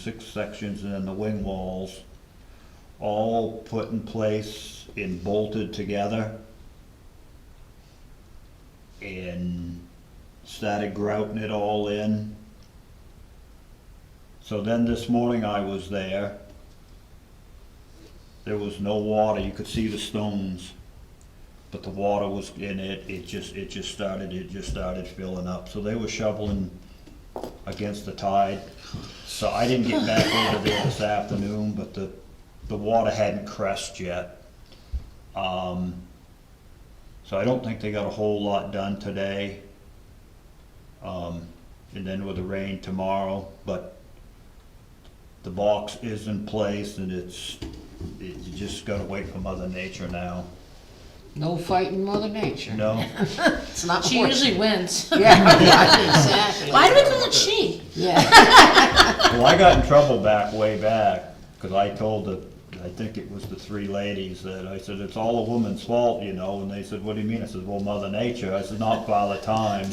six sections and then the wing walls, all put in place and bolted together. And started grouting it all in. So then this morning I was there. There was no water, you could see the stones, but the water was in it, it just, it just started, it just started filling up. So they were shoveling against the tide. So I didn't get back over there this afternoon, but the, the water hadn't crest yet. Um, so I don't think they got a whole lot done today. Um, and then with the rain tomorrow, but the box is in place and it's, it you just gotta wait for Mother Nature now. No fighting Mother Nature. No, It's not She horse. usually wins. Yeah, yeah, exactly. Why do we call it she? Yeah, well, I got in trouble back way back, cause I told the, I think it was the three ladies that, I said, it's all a woman's fault, you know, and they said, what do you mean? I said, well, Mother Nature, I said, not Father Time.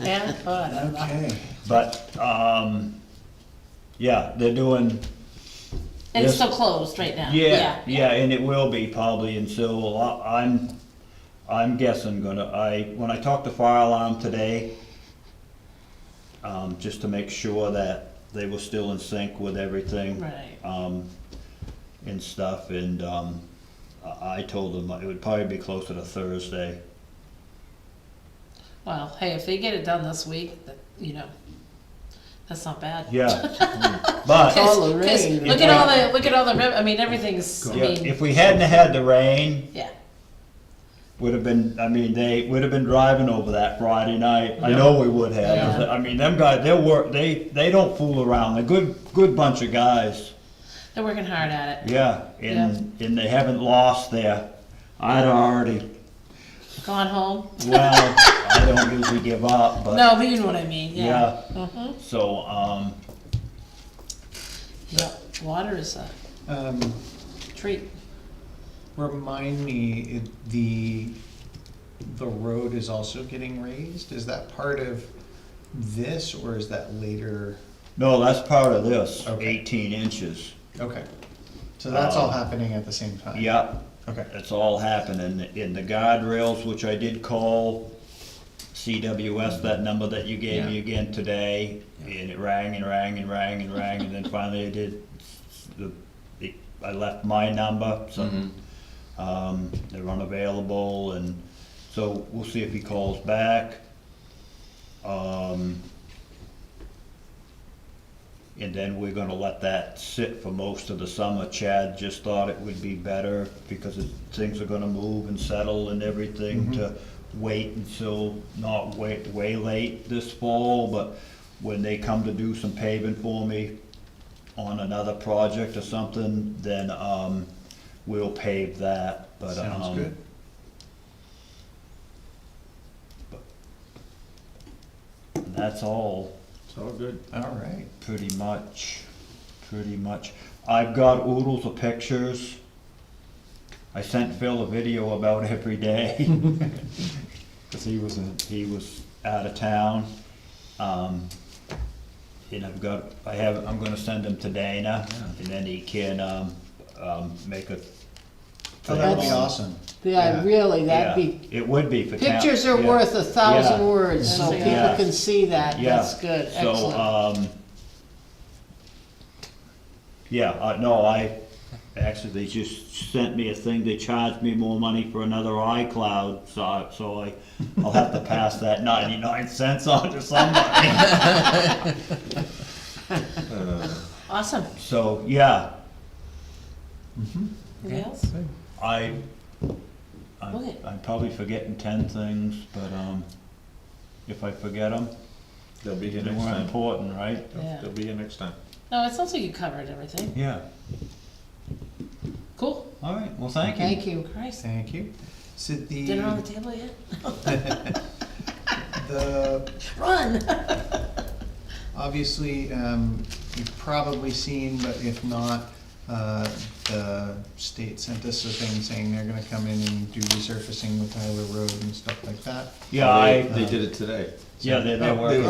Yeah, thought of that. But, um, yeah, they're doing, And it's Yes. still closed right now. yeah, yeah, and it will be probably, and so I- I'm, I'm guessing gonna, I, when I talked to fire alarm today, um, just to make sure that they were still in sync with everything. Right. Um, and stuff, and, um, I, I told them it would probably be closer to Thursday. Well, hey, if they get it done this week, that, you know, that's not bad. Yeah, but. 'Cause- All the 'cause rain. Look at all the, look at all the, rib- I mean, everything's, I Yeah, mean, if we hadn't had the rain, yeah. would have been, I mean, they would have been driving over that Friday night. I know we would have. Yeah. I mean, them guys, they'll work, they, they don't fool around. They're good, good bunch of guys. They're working hard at it. Yeah, and, and they haven't lost their, I'd already, Gone home? well, I don't usually give up, but, No, but you know what I mean, yeah. yeah. Mhm. So, um, Yep, water is a Um, treat. remind me, it- the, the road is also getting raised? Is that part of this or is that later? no, that's part of this, Okay. eighteen inches. Okay. So that's all Um, happening at the same time? Yep, Okay. It's all happening, in the guardrails, which I did call CWS, that number that you gave me again today, and it rang and rang and rang and rang, and then finally I did, the, it- I left my number, so, um, they're unavailable, and so we'll see if he calls back. Um, and then we're gonna let that sit for most of the summer. Chad just thought it would be better because it- things are gonna move and settle and Mm-hmm. everything to wait until, not wait way late this fall, but when they come to do some paving for me on another project or something, then, um, we'll pave that, but, um. Sounds good. That's all. It's all good. All right. Pretty much, pretty much. I've got oodles of pictures. I sent Phil a video about every day, cause he was, in- he was out of town. Um, and I've got, I have, I'm gonna send them to Dana, and then he can, um, um, make a. Oh, that would be thing on- awesome. yeah, really, that'd be, Yeah, It would be for town. pictures are yeah, worth a thousand yeah. words, so Yeah. people can see that, Yeah, that's good, So, excellent. um, yeah, uh, no, I, actually, they just sent me a thing, they charged me more money for another iCloud, so, I- so I, I'll have to pass that ninety-nine cents on to somebody. Awesome. So, yeah, Anything else? I, I'm, Okay. I'm probably forgetting ten things, but, um, if I forget them, They'll be here they next weren't time. important, right? Yeah. They'll be here next time. No, it sounds like you covered everything. Yeah, Cool. all right, well, thank you. Thank you. Christ. Thank you. So Dinner on the the, table yet? the, Run! obviously, um, you've probably seen, but if not, uh, the state sent us a thing saying they're gonna come in and do resurfacing with Tyler Road and stuff like that. Yeah, I, They did it today. yeah, they, they Oh, were. they